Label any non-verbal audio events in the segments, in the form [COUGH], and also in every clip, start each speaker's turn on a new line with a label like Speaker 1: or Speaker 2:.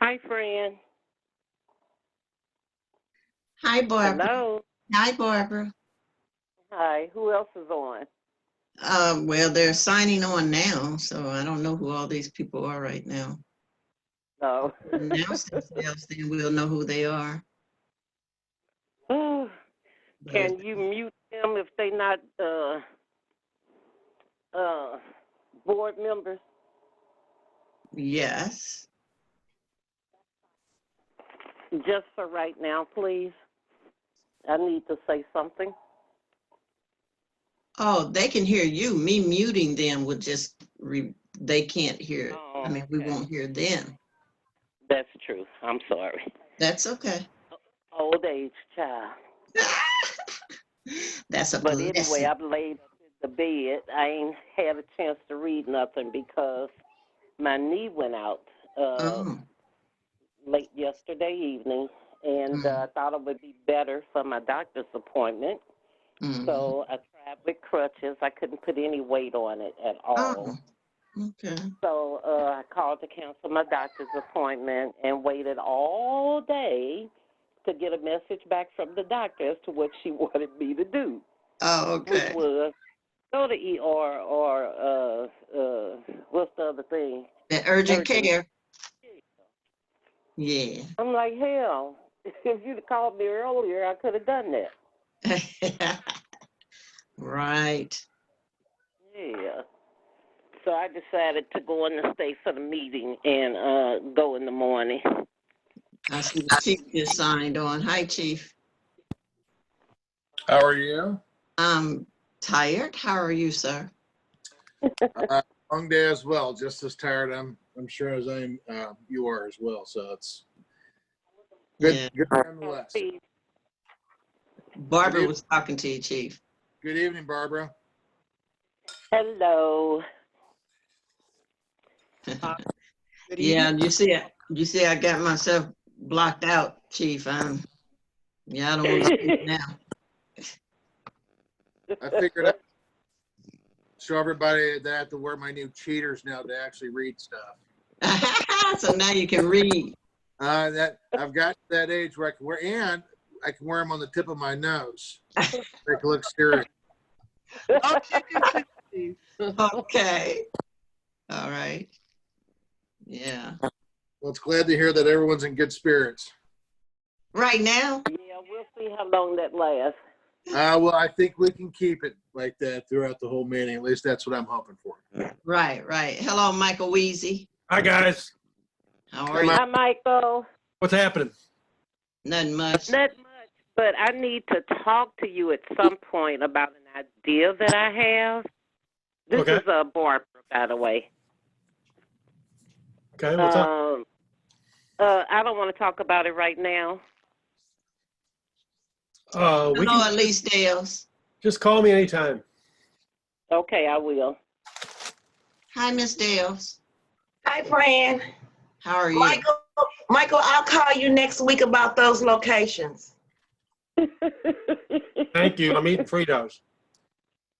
Speaker 1: Hi, Fran.
Speaker 2: Hi, Barbara.
Speaker 1: Hello.
Speaker 2: Hi, Barbara.
Speaker 1: Hi, who else is on?
Speaker 2: Uh, well, they're signing on now, so I don't know who all these people are right now.
Speaker 1: No. [LAUGHS]
Speaker 2: Announce themselves, then we'll know who they are. But-
Speaker 1: [LAUGHS] Can you mute them if they not, uh, uh, board members?
Speaker 2: Yes.
Speaker 1: Just for right now, please. I need to say something.
Speaker 2: Oh, they can hear you. Me muting them would just, re- they can't hear. it. I
Speaker 1: Oh,
Speaker 2: mean, we
Speaker 1: okay.
Speaker 2: won't hear them.
Speaker 1: That's true. I'm sorry.
Speaker 2: That's okay.
Speaker 1: Old age child.
Speaker 2: That's a
Speaker 1: But anyway, uh,
Speaker 2: blessing.
Speaker 1: I've laid up in the bed. I ain't had a chance to read nothing because my knee went out, uh,
Speaker 2: Oh,
Speaker 1: late yesterday evening, and
Speaker 2: Mm.
Speaker 1: uh, I thought it would be better for my doctor's appointment.
Speaker 2: mhm.
Speaker 1: So I tried with crutches. I couldn't put any weight on it at all.
Speaker 2: Oh, okay.
Speaker 1: So uh, I called to cancel my doctor's appointment and waited all day to get a message back from the doctor as to what she [LAUGHS] wanted me to do,
Speaker 2: Oh,
Speaker 1: which
Speaker 2: okay.
Speaker 1: was go to ER or uh, uh, what's the other thing?
Speaker 2: The urgent
Speaker 1: Urgent.
Speaker 2: care. Yeah.
Speaker 1: I'm like, hell, [LAUGHS] if you'd called me earlier, I could have done that.
Speaker 2: [LAUGHS] Right.
Speaker 1: Yeah. So I decided to go in and stay for the meeting and uh go in the morning.
Speaker 2: I see the chief just signed on. Hi, chief.
Speaker 3: How are you?
Speaker 2: I'm tired. How are you, sir?
Speaker 3: Uh, long day as well. Just as tired, I'm I'm sure as I'm uh, you are as well. So it's good.
Speaker 2: Yeah.
Speaker 3: Good nonetheless.
Speaker 2: Barbara
Speaker 3: Good.
Speaker 2: was talking to you, chief.
Speaker 3: Good evening, Barbara.
Speaker 1: Hello.
Speaker 2: [LAUGHS]
Speaker 4: Good
Speaker 2: Yeah,
Speaker 4: evening.
Speaker 2: you see, I- you see, I got myself blocked out, chief. I'm, yeah, I don't want to speak now. [LAUGHS]
Speaker 3: I figured out. Show everybody that I have to wear my new cheaters now to actually read stuff.
Speaker 2: So now you can read.
Speaker 3: Uh, that I've got to that age where I can wear, and I can wear them on the tip of my nose. Make it look serious.
Speaker 5: Oh.
Speaker 4: I'll check and see, Steve.
Speaker 2: Okay. All right. Yeah.
Speaker 3: Well, it's glad to hear that everyone's in good spirits.
Speaker 2: Right now?
Speaker 1: [LAUGHS] Yeah, we'll see how long that lasts.
Speaker 3: Uh, well, I think we can keep it like that throughout the whole meeting. At least that's what I'm hoping for.
Speaker 2: Right, right. Hello, Michael Weezy.
Speaker 5: Hi, guys.
Speaker 2: How
Speaker 3: Hey,
Speaker 2: are you?
Speaker 3: Mike.
Speaker 1: Hi, Michael.
Speaker 5: What's happening?
Speaker 2: Nothing much.
Speaker 1: Not much, but I need to talk to you at some point about an idea that I have. This
Speaker 5: Okay.
Speaker 1: is uh, Barbara, by the way.
Speaker 5: Okay, what's up?
Speaker 1: Um, uh, I don't want to talk about it right now.
Speaker 5: Uh, we
Speaker 2: Hello,
Speaker 5: can
Speaker 2: Elise Dales.
Speaker 5: just call me anytime.
Speaker 1: Okay, I will. [LAUGHS]
Speaker 2: Hi, Miss Dales.
Speaker 6: Hi, Fran.
Speaker 2: How are you?
Speaker 6: Michael, Michael, I'll call you next week about those locations.
Speaker 5: Thank you. I'm eating Fritos.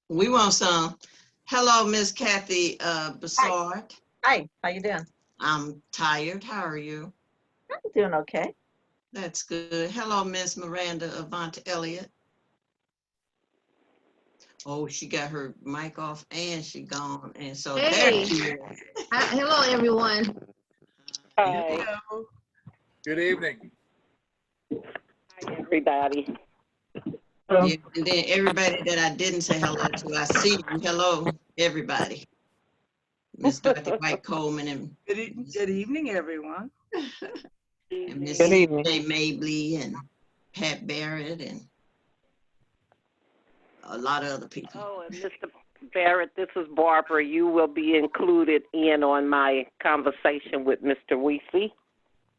Speaker 2: We want some. Hello, Miss Kathy uh, Bassard.
Speaker 7: Hi, how you doing?
Speaker 2: I'm tired. How are you?
Speaker 7: I'm doing okay.
Speaker 2: That's good. Hello, Miss Miranda Avant Elliott. Oh, she got her mic off and she gone. And so there
Speaker 8: Hey.
Speaker 2: she is.
Speaker 8: Uh, hello, everyone.
Speaker 1: Hi,
Speaker 4: Hello.
Speaker 3: Good evening.
Speaker 1: hi everybody.
Speaker 2: Yeah, And then everybody that I didn't say hello to, I see you. Hello, everybody. Miss Dorothy White Coleman and
Speaker 4: Good e- good evening, everyone.
Speaker 2: and Miss
Speaker 9: Good
Speaker 2: Jay
Speaker 9: evening.
Speaker 2: Mably and Pat Barrett and a lot of other people.
Speaker 1: Oh, and Mr. Barrett, this is Barbara. You will be included in on my conversation with Mr. Weesey.